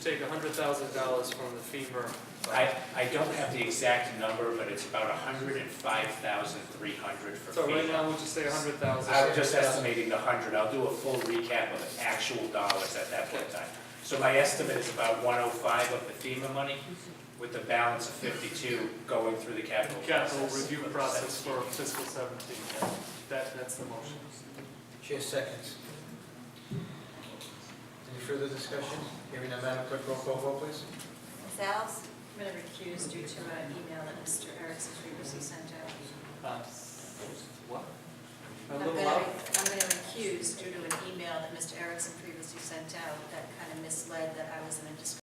Take hundred thousand dollars from the FEMA. I, I don't have the exact number, but it's about hundred and five thousand three hundred for So right now, FEMA. would you say a hundred thousand? I was just estimating the hundred, I'll do a full recap of the actual dollars at that point in time. So my estimate is about one oh five of the FEMA money, with the balance of fifty-two going through the capital process. Capital review process for fiscal seventeen. That, that's the motion. Chair seconds. Any further discussion? Hearing none, Madam Clerk, roll call vote, please. Ms. Alves? I'm going to recuse due to an email that Mr. Erickson previously sent out. Um, What? A I'm little gonna- loud? I'm going to recuse due to an email that Mr. Erickson previously sent out that kind of misled that I was in a discussion